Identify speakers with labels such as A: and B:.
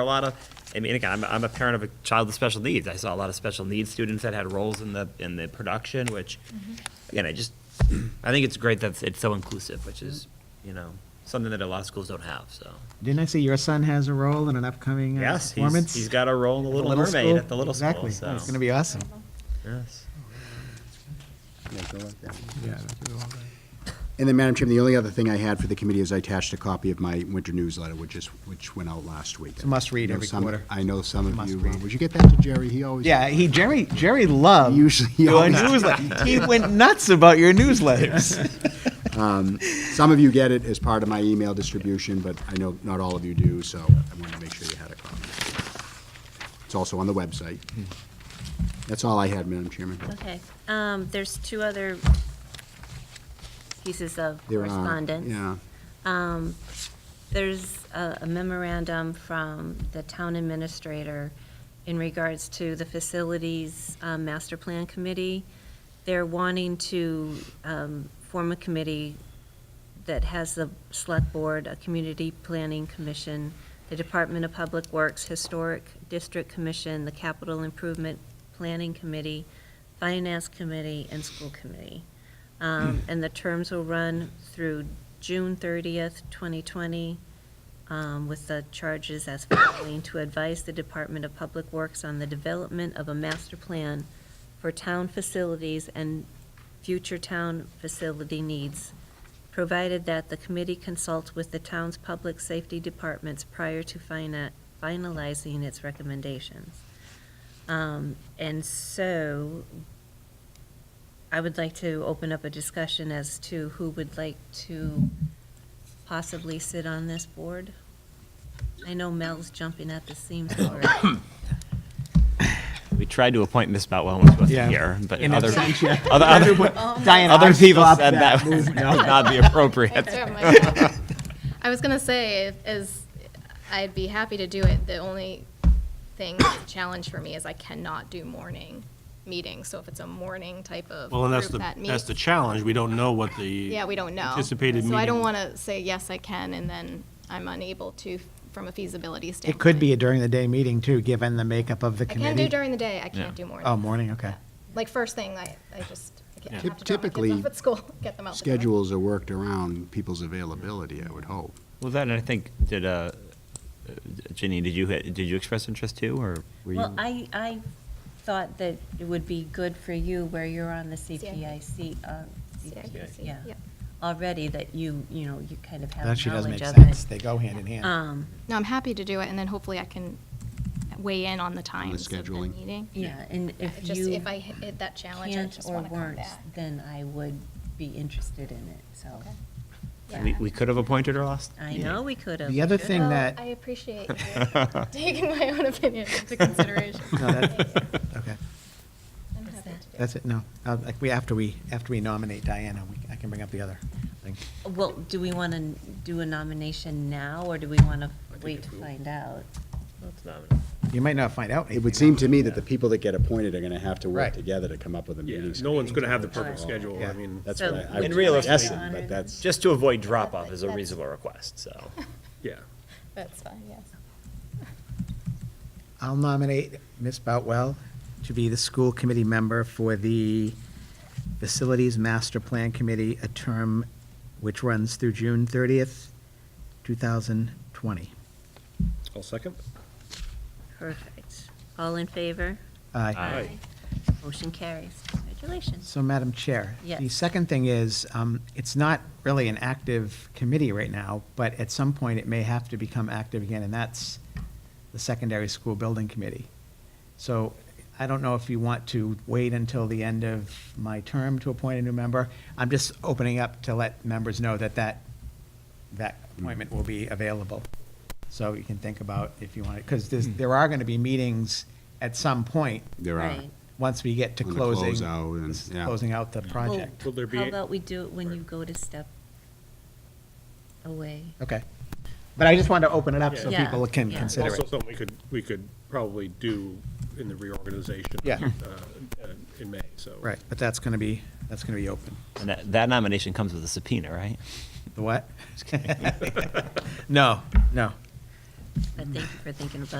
A: a lot of, I mean, again, I'm, I'm a parent of a child with special needs. I saw a lot of special needs students that had roles in the, in the production, which, again, I just, I think it's great that it's so inclusive, which is, you know, something that a lot of schools don't have, so.
B: Didn't I see your son has a role in an upcoming uh,
A: Yes,
B: performance?
A: he's, he's got a role in The
B: at the
A: Little Mermaid
B: school?
A: at the little school,
B: exactly.
A: so.
B: It's going to be awesome.
A: Yes.
C: And then, Madam Chairman, the only other thing I had for the committee is I attached a copy of my winter newsletter, which is, which went out last week.
B: It's a must-read
C: I know
B: every
C: some-
B: quarter.
C: I know some of
B: Must
C: you, uh,
B: read.
C: would you get that to Jerry? He always.
B: Yeah, he Jerry Jerry loved
C: Usually-
B: your newsletter. he went nuts about your newsletters.
C: Some of you get it as part of my email distribution, but I know not all of you do, so I wanted to make sure you had a copy. It's also on the website. That's all I had, Madam Chairman.
D: Okay, um, there's two other pieces of
C: There are-
D: correspondence.
C: Yeah.
D: Um, There's a a memorandum from the town administrator in regards to the facilities um, master plan committee. They're wanting to um, form a committee that has the select board, a community planning commission, the Department of Public Works, Historic District Commission, the Capital Improvement Planning Committee, Finance Committee, and School Committee. Um, And the terms will run through June 30th, 2020, um, with the charges as following: to advise the Department of Public Works on the development of a master plan for town facilities and future town facility needs, provided that the committee consults with the town's public safety departments prior to fina- finalizing its recommendations. Um, And so I would like to open up a discussion as to who would like to possibly sit on this board. I know Mel's jumping at the seams for it.
A: We tried to appoint Miss Boutwell when she
B: Yeah.
A: wasn't here, but
B: In
A: other,
B: absentia.
A: other, other,
B: Diana,
A: other
B: I
A: people
B: stopped
A: said that
B: move.
A: would not be appropriate.
E: I was gonna say, as I'd be happy to do it. The only thing challenge for me is I cannot do morning meetings. So if it's a morning type of
F: Well, and that's
E: group
F: the,
E: that
F: that's the
E: meets-
F: challenge. We don't know what the.
E: yeah, we don't know.
F: Anticipated
E: So I don't
F: meeting-
E: want to say yes, I can, and then I'm unable to from a feasibility standpoint.
B: It could be a during the day meeting too, given the makeup of the
E: I
B: committee.
E: can do during the day. I can't do morning.
B: Oh, morning. Okay.
E: Like first thing, I, I just I can't- I have
F: Yeah.
E: to drop my
C: Typically,
E: kids off at school, get them out. the door.
C: Schedules are worked around people's availability, I would hope.
A: Well, then, I think, did, uh, uh, Ginny, did you, ha- did you express interest too, or were you?
D: Well, I, I thought that it would be good for you where you're on the CPIC, uh,
E: CIPC,
D: yeah,
E: yeah.
D: already that you, you know, you kind of have
B: That
D: knowledge
B: actually
D: of it.
B: does make sense. They go hand in hand.
D: Um,
E: No, I'm happy to do it, and then hopefully I can weigh in on the times of the
C: scheduling.
E: meeting.
D: yeah, and if
E: Just
D: you
E: if I hit that challenge, I
D: can't
E: just
D: or
E: want to come
D: weren't,
E: back.
D: then I would be interested in it, so.
E: Okay.
A: We,
E: Yeah.
A: we could have appointed her last.
D: I
A: meeting.
D: know we could have.
B: The other thing
E: Well,
B: that-
E: I appreciate you taking my own opinion into consideration.
B: No, that- okay.
E: I'm happy to do it.
B: That's it. No, uh, like we after we after we nominate Diana, we, I can bring up the other thing.
D: Well, do we want to do a nomination now, or do we want to wait to find out?
B: You might not find out.
C: It would
B: anything.
C: seem to me that the people that get appointed are gonna have to
B: Right.
C: work together to come up with a meeting.
F: Yeah, no one's gonna have the
D: Right.
F: perfect schedule.
B: Yeah.
F: I mean,
C: That's
D: So
C: what I- I
A: And
C: was
D: would you like to
A: realistically-
C: guessing,
D: honor
C: but
D: them?
C: that's.
A: Just to avoid drop-off is a
E: That's-
A: reasonable request, so.
F: yeah.
E: That's fine, yes.
B: I'll nominate Ms. Boutwell to be the school committee member for the Facilities Master Plan Committee, a term which runs through June 30th, 2020.
F: I'll second.
D: Perfect. All in favor?
B: Aye.
F: Aye.
D: Motion carries. Congratulations.
B: So, Madam Chair. The
D: Yes.
B: second thing is, um, it's not really an active committee right now, but at some point, it may have to become active again, and that's the Secondary School Building Committee. So I don't know if you want to wait until the end of my term to appoint a new member. I'm just opening up to let members know that that, that appointment will be available. So you can think about if you want it, because there are going to be meetings at some point,
C: There are.
D: Right.
B: once we get to
C: On the
B: closing.
C: closeout and-
B: this-
C: yeah.
B: Closing out the
D: Well,
B: project.
F: Will there be-
D: How about we do it when you go to step away?
B: Okay. But I just wanted to open it up so
D: Yeah.
B: people can
D: Yeah.
B: consider
F: Also,
B: it.
F: something we could, we could probably do in the reorganization.
B: Yeah.
F: uh, In May, so.
B: Right, but that's going to be, that's going to be open.
A: Uh, And that, that nomination comes with a subpoena, right?
B: The what? No, no.
D: But thank you for thinking about